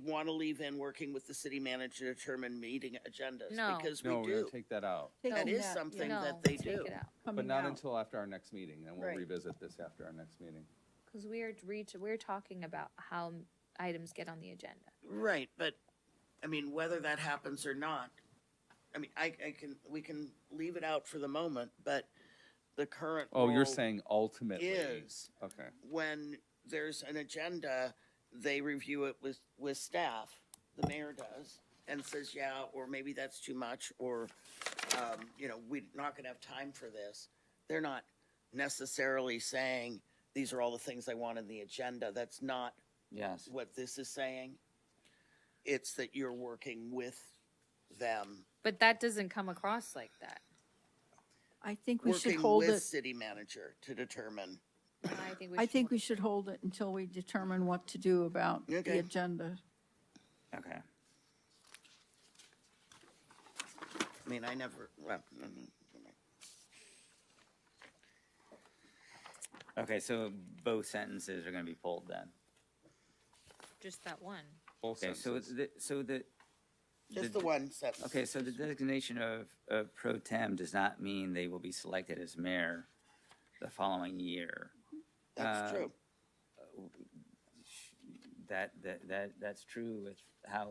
want to leave in working with the city manager to determine meeting agendas? No. Because we No, we're do. gonna take that out, That Taking is that, something yeah, No, that they take do. it out. coming but not out. until after our next meeting, then we'll Right. revisit this after our next meeting. Because we are reach, we're talking about how items get on the agenda. Right, but, I mean, whether that happens or not, I mean, I, I can, we can leave it out for the moment, but the current. Oh, you're rule saying ultimately? Is Okay, when there's an agenda, they review it with, with staff, the mayor does, and says, yeah, or maybe that's too much, or, um, you know, we're not gonna have time for this. They're not necessarily saying, these are all the things I want in the agenda. That's not Yes. what this is saying. It's that you're working with them, But that doesn't come across like that. I think we should working hold with it, city manager to determine. I think we I should think look- we should hold it until we determine what to do about Okay. the agenda. Okay. I mean, I never, well, Mm-hmm. mm, mm. Okay, so both sentences are gonna be pulled then. Just that one. both Okay, so senses. the, so the. just the one sentence. Okay, so the designation of, of pro tem does not mean they will be selected as mayor the following year. That's uh, true. That, that, that, that's true with how,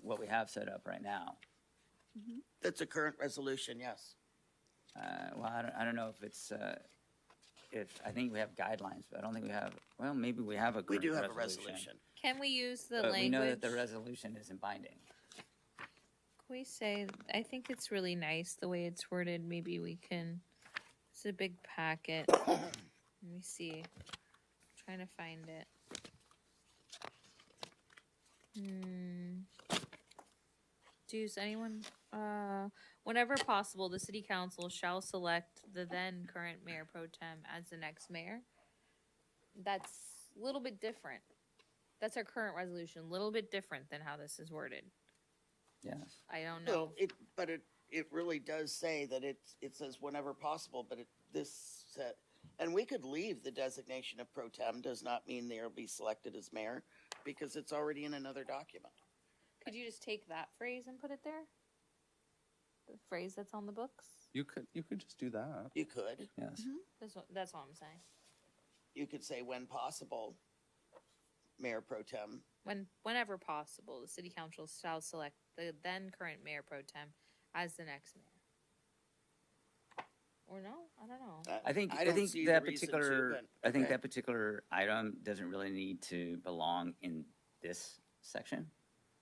what we have set up right now. That's a current resolution, yes. Uh, well, I don't, I don't know if it's, uh, if, I think we have guidelines, but I don't think we have, well, maybe we have a. We do current have a resolution. Can we use the But language? we know that the resolution isn't binding. Can we say, I think it's really nice the way it's worded. Maybe we can, it's a big packet. Let me see. trying to find it. Hmm. Does anyone, uh, whenever possible, the city council shall select the then current mayor pro tem as the next mayor? That's a little bit different. That's our current resolution, a little bit different than how this is worded. Yes. I don't know. No, it, but it, it really does say that it's, it says whenever possible, but it, this said, and we could leave the designation of pro tem does not mean they'll be selected as mayor because it's already in another document. Could you just take that phrase and put it there? The phrase that's on the books? You could, you could just do that. You could, Yes. That's what, that's all I'm saying. you could say when possible, mayor pro tem. When, whenever possible, the city council shall select the then current mayor pro tem as the next mayor. Or no, I don't know. I think, I don't think see the that reason to, particular, but- I think okay. that particular item doesn't really need to belong in this section,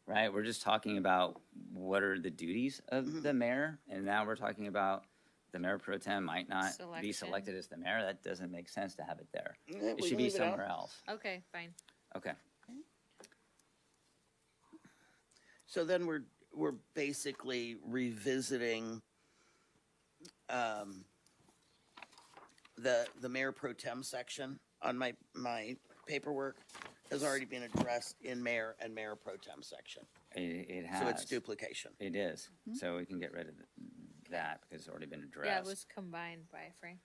right? We're just talking about what are the duties Mhm. of the mayor, and now we're talking about the mayor pro tem might not be Selection. selected as the mayor. That doesn't make sense to have it there. Yeah, It Eh, we should be leave it out. somewhere else. Okay, fine. Okay. So then we're, we're basically revisiting, um, the, the mayor pro tem section on my, my paperwork has already been addressed in mayor and mayor pro tem section. It, it has. So it's duplication. It is. So we can get rid of that because it's already been addressed. Mm-hmm. Yeah, it was combined by Frank.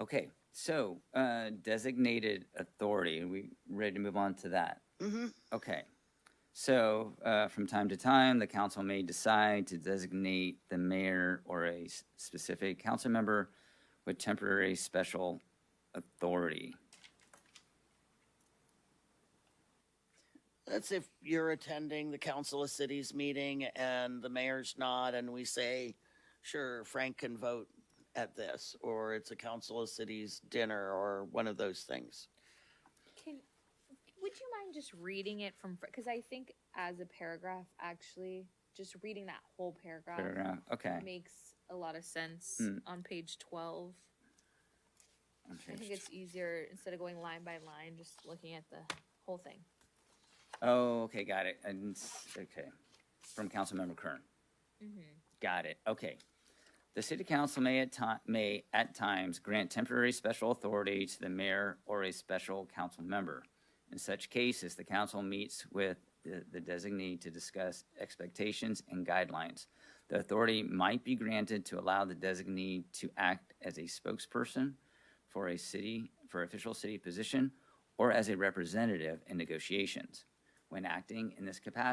Okay, so uh, designated authority, we ready to move on to that? Mm-hmm. Okay. So uh, from time to time, the council may decide to designate the mayor or a s- specific council member with temporary special authority. That's if you're attending the council of cities meeting and the mayor's not, and we say, sure, Frank can vote at this, or it's a council of cities dinner, or one of those things. Can, would you mind just reading it from, because I think as a paragraph, actually, just reading that whole paragraph Paragraph- Okay. makes a lot of sense Hmm. on page twelve. on I page think it's easier instead of going line by line, just looking at the whole thing. Oh, okay, got it. And, s- okay, from Councilmember Kern. Got it, okay. The city council may at ti- may at times grant temporary special authority to the mayor or a special council member. In such cases, the council meets with the the designee to discuss expectations and guidelines. The authority might be granted to allow the designee to act as a spokesperson for a city, for official city position, or as a representative in negotiations. When acting in this capacity,